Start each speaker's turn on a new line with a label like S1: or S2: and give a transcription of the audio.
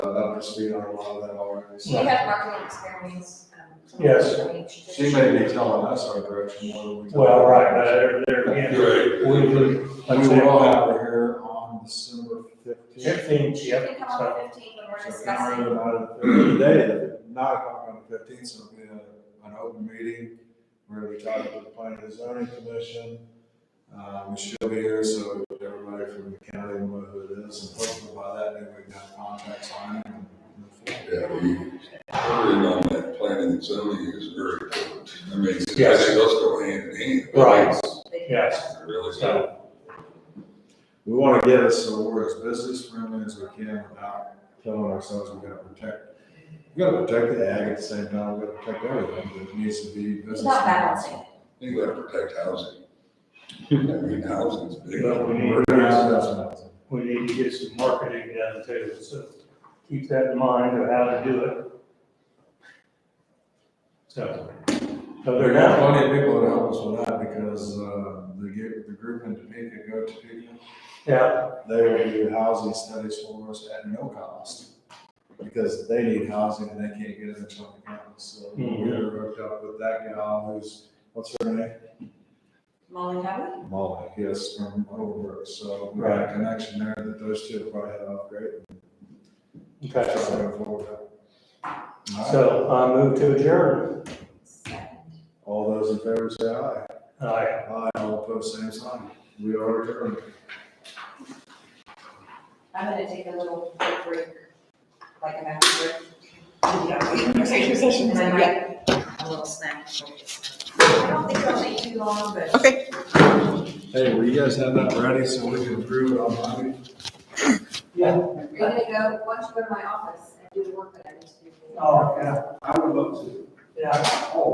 S1: must be on a lot of that already.
S2: She had marketing experience. um, so
S3: Yes.
S2: she did-
S1: She may be telling us our direction more than we.
S3: Well, right, but there, there again,
S4: Right.
S3: we would, like I
S1: We
S3: said,
S1: will have her here on December fifteenth.
S3: fifteen,
S2: She
S3: yep,
S2: can come
S3: so-
S2: on the fifteenth when
S1: So
S2: we're
S1: if you're
S2: discussing.
S1: not available Today, nine o'clock on the fifteenth, so it'll be a- an open meeting. We're gonna be talking to the planning and zoning commission. Um, she'll be here, so everybody from the county will know who it is, and hopefully by that, maybe we've got contacts on it. and move forward.
S4: Yeah, we, worrying on that planning and zoning is very important. I mean, I think
S3: Yes.
S4: those go hand in hand.
S3: Right.
S2: They-
S3: yes,
S4: Really, so,
S3: so,
S1: We wanna get us, so we're as business friendly as we can without telling ourselves we gotta protect. We gotta protect the ag at the same time, we gotta protect everything that needs to be business.
S2: It's about balancing.
S4: you gotta protect housing. I mean, housing's big.
S3: But we need-
S1: We're gonna have that.
S3: we need to get some marketing done too, so keep that in mind of how to do it. So, so
S1: There
S3: they're
S1: are
S3: not,
S1: plenty of people that help us with that because, uh, the, group- the group in Topeka, Go Topeka,
S3: yeah,
S1: they will do housing studies for us at no cost. Because they need housing and they can't get it until the county, so
S3: Mhm.
S1: we're hooked up with that gal who's, what's her name?
S2: Molly Hubbard?
S1: Molly, yes, from Overbrook, so we got a connection there that those two will probably have off great.
S3: okay,
S1: Try to go forward. All right,
S3: so I move to adjourn.
S2: Second.
S1: all those in favor say aye.
S3: Aye.
S1: Aye, all opposed, same sign. We are adjourned.
S2: I'm gonna take a little quick break, like an after break. Executive session. And I might, a little snack. I don't think it'll take too long, but.
S1: Hey, will you guys have that ready so we can approve it on Monday?
S2: You're gonna go, why don't you go to my office and do the work that I need to do?
S3: Oh, yeah.
S5: I would love to.
S3: Yeah.